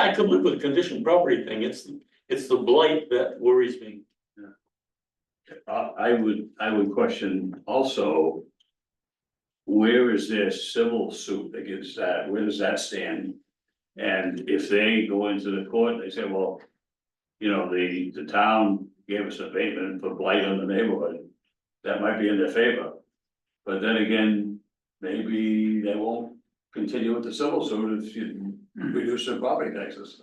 I could live with the conditioned property thing, it's, it's the blight that worries me. Uh, I would, I would question also. Where is their civil suit against that? Where does that stand? And if they go into the court, they say, well. You know, the, the town gave us an abatement for blight on the neighborhood. That might be in their favor. But then again, maybe they won't continue with the civil suit if you reduce their property taxes.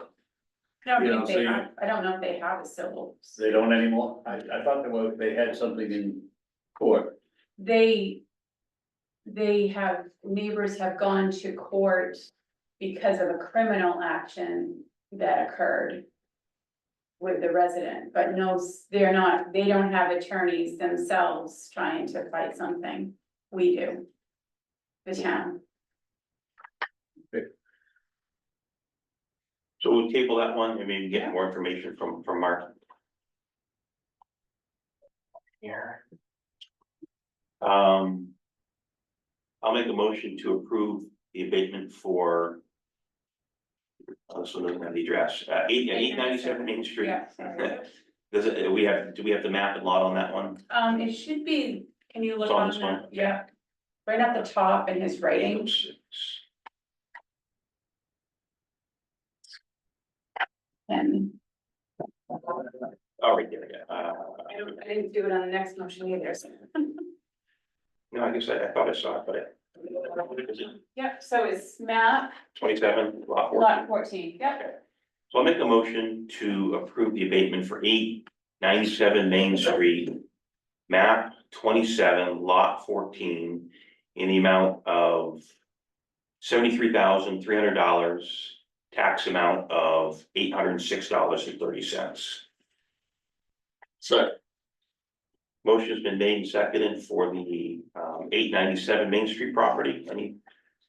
I You know, don't think so they you- have, I don't know if they have a civil. They don't anymore? I, I thought they were, they had something in court. They. They have, neighbors have gone to court because of a criminal action that occurred. With the resident, but no, s- they're not, they don't have attorneys themselves trying to fight something, we do. The town, So we'll table that one and maybe get more information from, from Mark. Here. Um. I'll make a motion to approve the abatement for. Oh, this one doesn't have the address, uh, eight, eight ninety-seven Main Street. yeah. sorry. Does it, we have, do we have the map and lot on that one? Um, it should be, can you look It's on on this one. that, yeah, right at the top in his writing, and. Oh, right there, yeah, uh, I don't, I didn't do it on the next motion either, so. no, I guess I, I thought I saw it, but it. Yep, so it's map, Twenty-seven lot four. lot fourteen, yep, So I'll make a motion to approve the abatement for eight ninety-seven Main Street. Map twenty-seven, lot fourteen, in the amount of. Seventy-three thousand, three hundred dollars, tax amount of eight hundred and six dollars and thirty cents. So. Motion's been made and seconded for the um eight ninety-seven Main Street property. Any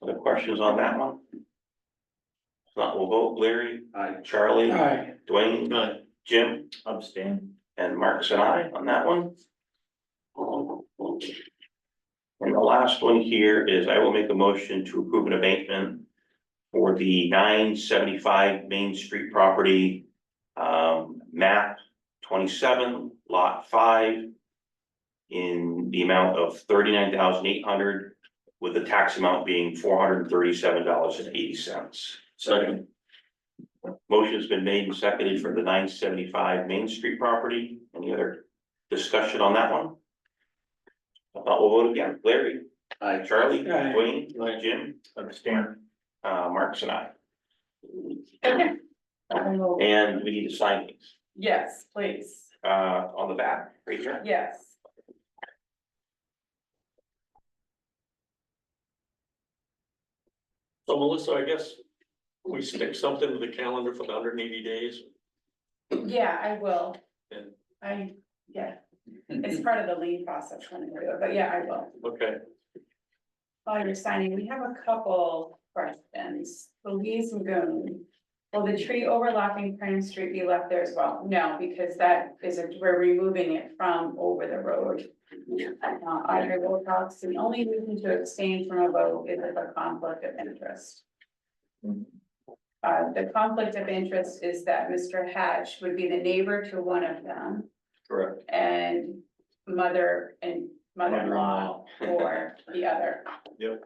other questions on that one? If not, we'll vote. Larry? I Charlie? Aye. Dwayne? Jim? Abstain. And Mark's and I on that one. And the last one here is I will make a motion to approve an abatement for the nine seventy-five Main Street property, um, map twenty-seven, lot five, in the amount of thirty-nine thousand eight hundred, with the tax amount being four hundred and thirty-seven dollars and eighty cents. Second. Motion's been made and seconded for the nine seventy-five Main Street property. Any other discussion on that one? If not, we'll vote again. Larry, I Charlie, Aye. Dwayne, Aye. Jim, understand, uh, Marks and I. yep. And we need to sign these, Yes, please, uh, on the back, right here. yes. So Melissa, I guess we stick something to the calendar for the hundred and eighty days. Yeah, I will. And- I, yeah, it's part of the lean process when I do it, but yeah, I will. Okay, While you're signing, we have a couple questions. Louise Magoon. Will the tree overlapping Crane Street be left there as well? No, because that is, a- we're removing it from over the road. Uh, Audrey Wilcox, the only reason to abstain from a vote is if a conflict of interest. Uh, the conflict of interest is that Mr. Hatch would be the neighbor to one of them correct. and mother and mother-in-law Mother-in-law. or the other. Yep.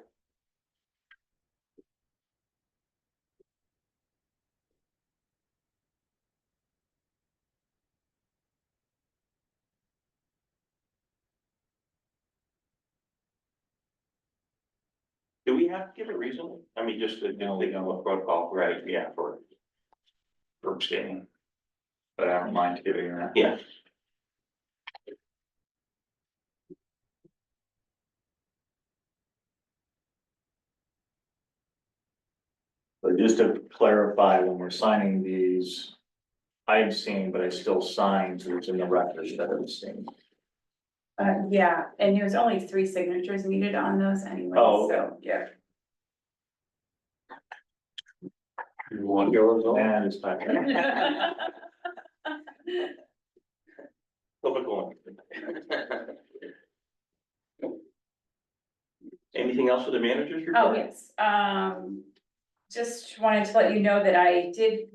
Do we have to give a reason? I mean, just to, you know, they know a protocol, right, yeah, for. For abstaining. But I don't mind giving that. Yeah. But just to clarify, when we're signing these, I abstain, but I still sign, so it's in the record that I abstain. Uh, yeah, and there was only three signatures needed on those anyway, Oh. so, yeah. You want yours on? That is back. Typical. Anything else for the managers report? Oh, yes, um, just wanted to let you know that I did